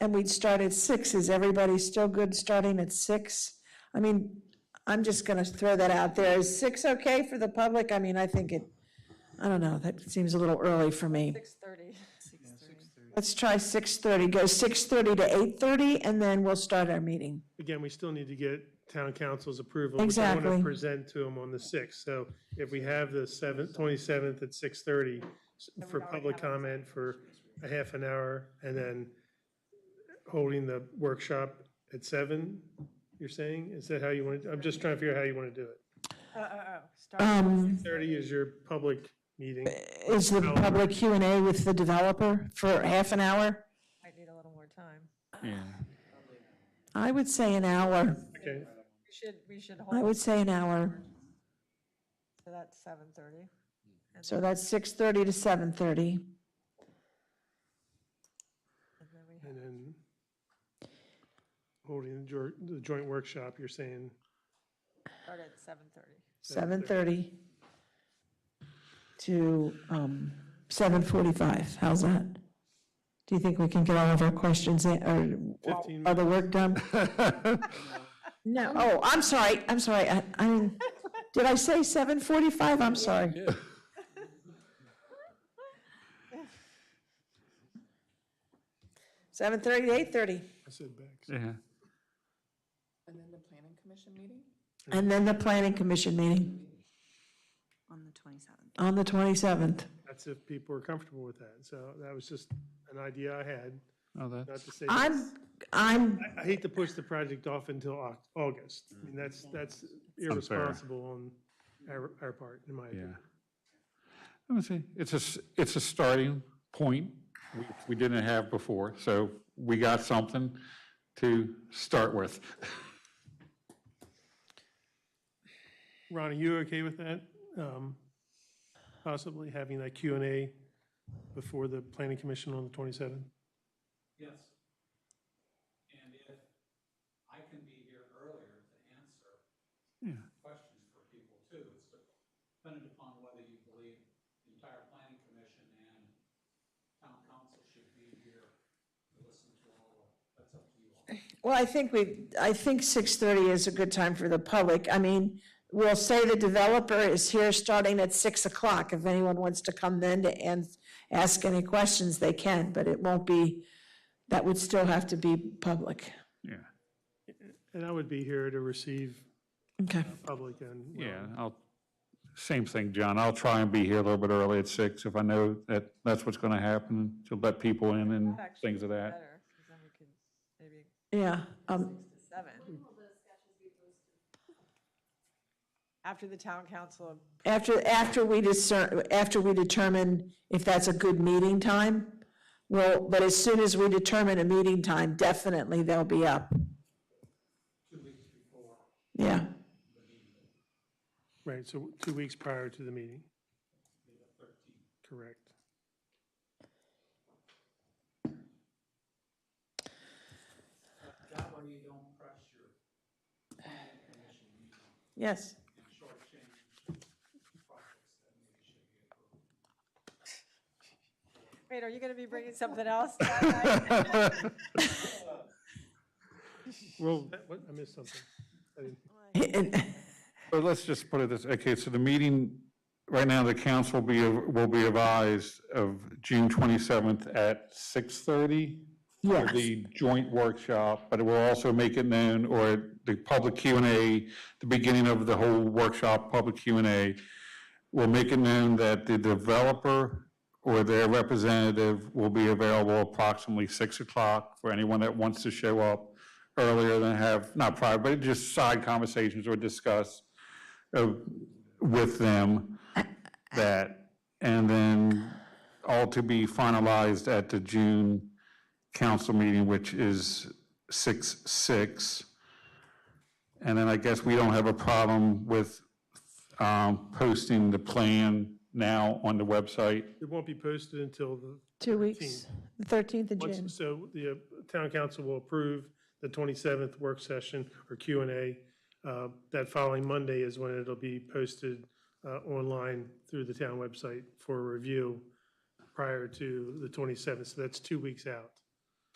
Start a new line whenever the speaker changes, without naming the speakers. and we'd start at six, is everybody still good starting at six? I mean, I'm just gonna throw that out there. Is six okay for the public? I mean, I think it, I don't know, that seems a little early for me.
Six thirty.
Let's try six thirty, go six thirty to eight thirty, and then we'll start our meeting.
Again, we still need to get town council's approval. which I want
Exactly.
to present to them on the 6th. So if we have the 7th, 27th at 6:30 s- for public comment for a half an hour, and then holding the workshop at 7, you're saying? Is that how you want, I'm just trying to figure out how you want to do it.
Oh, oh, oh,
Um,
30 is your public meeting.
Is the public Q and A with the developer for half an hour?
I need a little more time.
I would say an hour.
Okay,
We should, we should
I
hold
would say an hour.
to that seven thirty.
So that's six thirty to seven thirty.
And then we have,
and then holding the jor- the joint workshop, you're saying?
start at seven thirty.
Seven thirty to um, seven forty-five. How's that? Do you think we can get all of our questions in, or
15
are the work done? No, oh, I'm sorry, I'm sorry. I, I, didn't- did I say seven forty-five? I'm sorry. Seven thirty to eight thirty.
I said back.
Yeah.
And then the planning commission meeting?
And then the planning commission meeting
On the twenty-seventh.
on the twenty-seventh.
That's if people are comfortable with that. So that was just an idea I had,
Oh,
not
that's,
to say, I
I'm, I'm
I hate to push the project off until Au- August. I mean, that's, that's irresponsible on our, our part, in my
yeah.
opinion.
Let me see, it's a, s- it's a starting point we- we didn't have before, so we got something to start with.
Ron, are you okay with that? Um, Possibly having that Q and A before the planning commission on the 27th?
Yes. And if I can be here earlier to answer
Yeah.
questions for people too, it's dependent upon whether you believe the entire planning commission and town council should be here to listen to all of, that's up to you all.
Well, I think we, I think 6:30 is a good time for the public. I mean, we'll say the developer is here starting at 6 o'clock. If anyone wants to come then to and ask any questions, they can, but it won't be, that would still have to be public.
Yeah,
And I would be here to receive
Okay.
public and. well,
yeah, I'll, same thing, John, I'll try and be here a little bit early at six if I know that that's what's going to happen, to let people in and
That actually
things of
is
that.
better, 'cause then we could maybe
Yeah, um,
six to seven. After the town council,
after, after we discern, after we determine if that's a good meeting time, well, but as soon as we determine a meeting time, definitely they'll be up. Yeah.
Right, so two weeks prior to the meeting. Correct.
That way you don't press your planning commission meeting
Yes.
and shortchange projects that maybe should be approved.
wait, are you gonna be bringing something else? that night?
Well, what, I missed something. I didn't-
But let's just put it this, okay, so the meeting, right now, the council will be, will be advised of June 27th at 6:30? for
Yes.
the joint workshop, but it will also make it known, or the public Q and A, the beginning of the whole workshop, public Q and A, will make it known that the developer or their representative will be available approximately six o'clock for anyone that wants to show up earlier than have, not private, but just side conversations or discuss uh, with them that, and then all to be finalized at the June council meeting, which is six, six. And then I guess we don't have a problem with um, posting the plan now on the website.
It won't be posted until the
Two weeks, the 13th of
Once-
June.
So the uh, town council will approve the 27th work session or Q and A. Uh, That following Monday is when it'll be posted uh, online through the town website for review prior to the 27th. So that's two weeks out.